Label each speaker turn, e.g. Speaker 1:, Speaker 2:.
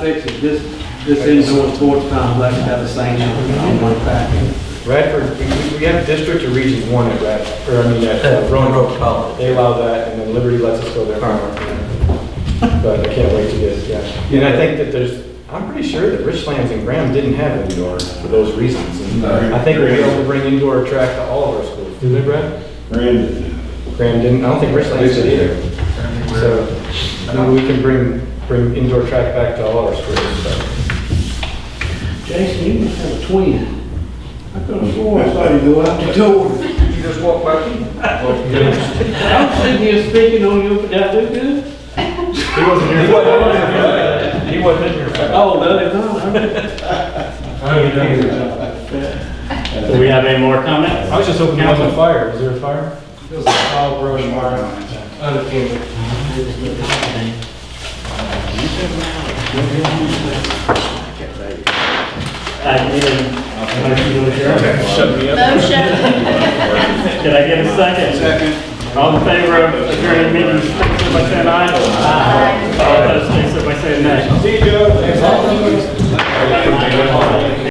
Speaker 1: Six is this, this indoor sports complex have the same on one package.
Speaker 2: Radford, we- we, we have district or region one at Radford, or I mean, at uh,
Speaker 3: Roanoke
Speaker 2: Roanoke.
Speaker 3: College.
Speaker 2: They allow that, and then Liberty lets us go there. But I can't wait to get, yeah. And I think that there's, I'm pretty sure that Richlands and Graham didn't have indoor for those reasons. And
Speaker 3: Uh,
Speaker 4: No.
Speaker 2: I think we'll be able to bring indoor track to all of our schools, do they, Brad?
Speaker 4: Brandon.
Speaker 2: Graham didn't, I don't think Richlands did either. So, I mean, we can bring, bring indoor track back to all our schools, so.
Speaker 1: Jason, you must have a twin. I could have sworn I saw you go out the door.
Speaker 3: You just walk by me.
Speaker 1: I'm sitting here speaking on you, did I do good?
Speaker 2: He wasn't here.
Speaker 3: He wasn't in here.
Speaker 1: Oh, no, they not.
Speaker 5: Do we have any more comments?
Speaker 2: I was just hoping there wasn't a fire, is there a fire?
Speaker 5: I didn't,
Speaker 2: Shut me
Speaker 6: Motion.
Speaker 5: did I get a second? Second. All in favor of adjourned meeting, signify by saying aye. All opposed, signify by saying nay.
Speaker 2: See you, Joe.
Speaker 5: Thank you.